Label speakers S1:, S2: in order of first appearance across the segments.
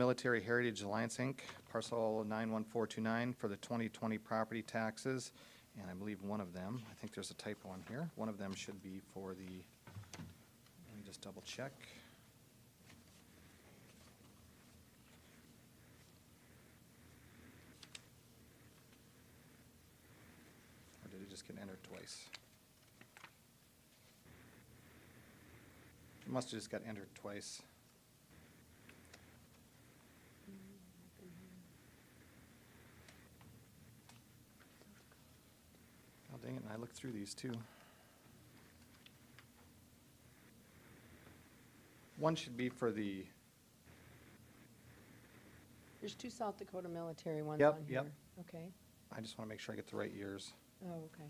S1: Military Heritage Alliance, Inc., parcel 91429 for the 2020 property taxes, and I believe one of them, I think there's a typo on here, one of them should be for the, let me just double check. Or did it just get entered twice? It must have just got entered twice. Oh, dang it, and I looked through these too. One should be for the,
S2: There's two South Dakota military ones
S1: Yep,
S2: on here.
S1: yep.
S2: Okay,
S1: I just want to make sure I get the right years.
S2: oh, okay.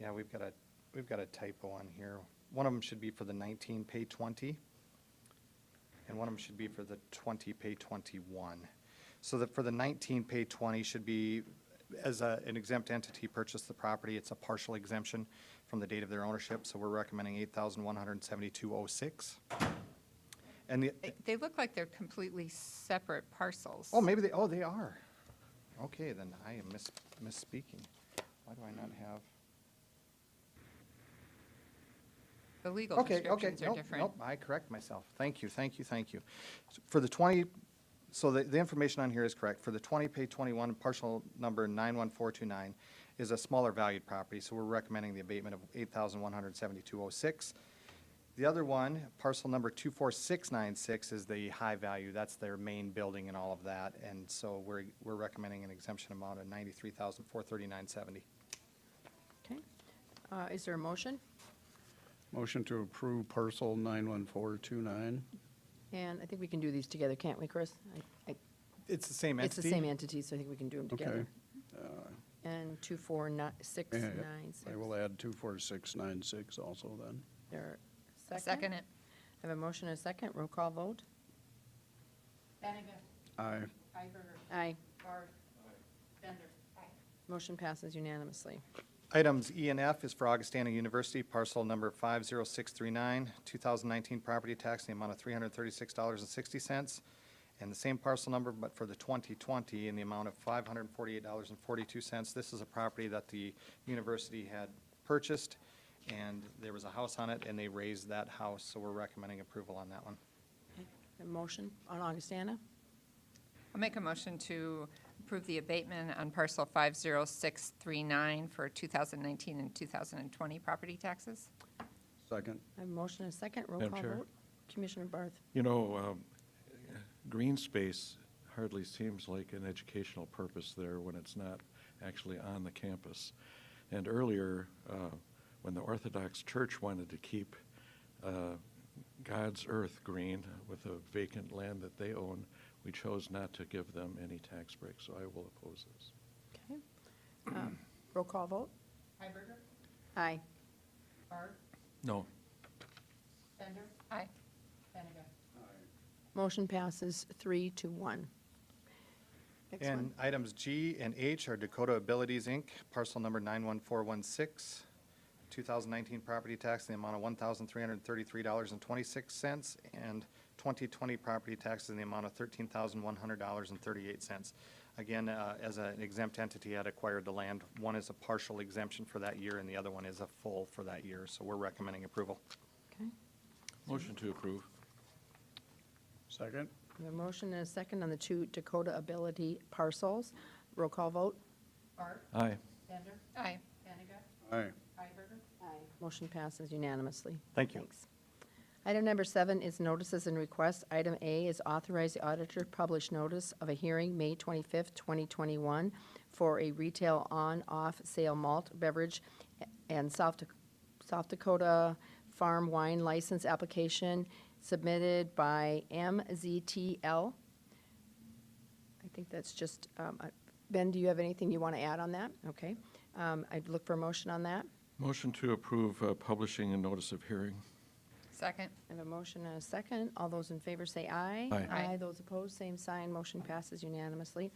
S1: Yeah, we've got a, we've got a typo on here. One of them should be for the 19 pay 20, and one of them should be for the 20 pay 21. So that for the 19 pay 20 should be, as a, an exempt entity purchased the property, it's a partial exemption from the date of their ownership, so we're recommending 8,172.06. And the,
S3: They- They look like they're completely separate parcels.
S1: oh, maybe they, oh, they are. Okay, then I am mis misspeaking. Why do I not have?
S3: The legal
S1: Okay, okay,
S3: descriptions are
S1: nope,
S3: different.
S1: nope, I correct myself. Thank you, thank you, thank you. S- For the 20, so the, the information on here is correct. For the 20, pay 21, partial number 91429 is a smaller valued property, so we're recommending the abatement of 817206 The other one, parcel number 24696 is the high value, that's their main building and all of that. And so we're, we're recommending an exemption amount of 93,439.70.
S2: Okay. Uh, Is there a motion?
S4: Motion to approve parcel 91429.
S2: And I think we can do these together, can't we, Chris? I- I-
S1: It's the same
S2: It's
S1: entity?
S2: the same entity, so I think we can do them together.
S4: Okay.
S5: Uh,
S2: And two, four, nine, six,
S4: Yeah,
S2: nine, six.
S4: I will add 24696 also then.
S2: There,
S3: I
S2: second?
S3: Second it.
S2: I have a motion and a second, roll call vote?
S4: Aye.
S2: Aye. Motion passes unanimously.
S1: Items E and F is for Augustana University, parcel number 50639, 2019 property tax in the amount of $336.60, and the same parcel number, but for the 2020, in the amount of $548.42. This is a property that the university had purchased, and there was a house on it, and they raised that house, so we're recommending approval on that one.
S2: A motion on Augustana?
S3: I'll make a motion to approve the abatement on parcel 50639 for 2019 and 2020 property taxes.
S4: Second.
S2: I have a motion and a second, roll
S5: Madam
S2: call
S5: Chair.
S2: vote? Commissioner Barth?
S5: You know, um, green space hardly seems like an educational purpose there when it's not actually on the campus. And earlier, uh, when the Orthodox Church wanted to keep uh, God's earth green with a vacant land that they own, we chose not to give them any tax breaks, so I will oppose this.
S2: Okay. Um, Roll call vote?
S3: Hiberger?
S2: Aye.
S3: Barb?
S5: No.
S3: Bender? Aye. Benega?
S2: Motion passes three to one. Next one.
S1: And items G and H are Dakota Abilities, Inc., parcel number 91416, 2019 property tax in the amount of $1,333.26, and 2020 property taxes in the amount of $13,100.38. Again, uh, as an exempt entity had acquired the land, one is a partial exemption for that year, and the other one is a full for that year, so we're recommending approval.
S2: Okay.
S5: Motion to approve.
S4: Second.
S2: We have a motion and a second on the two Dakota Ability parcels. Roll call vote?
S5: Aye.
S3: Aye.
S4: Aye.
S2: Aye. Motion passes unanimously.
S1: Thank you.
S2: Thanks. Item number seven is notices and requests. Item A is authorize the auditor to publish notice of a hearing, May 25th, 2021, for a retail on-off sale malt beverage and South Dak- South Dakota farm wine license application submitted by MZTL. I think that's just, um, I- Ben, do you have anything you want to add on that? Okay. Um, I'd look for a motion on that.
S5: Motion to approve uh, publishing a notice of hearing.
S3: Second.
S2: I have a motion and a second. All those in favor say aye.
S5: Aye.
S3: Aye.
S2: Those opposed, same sign. Motion passes unanimously.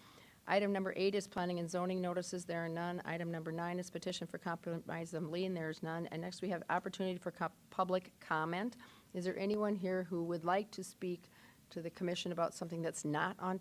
S2: Item number eight is planning and zoning notices. There are none. Item number nine is petition for compromise of lien. There is none. And next, we have opportunity for co- public comment. Is there anyone here who would like to speak to the commission about something that's not on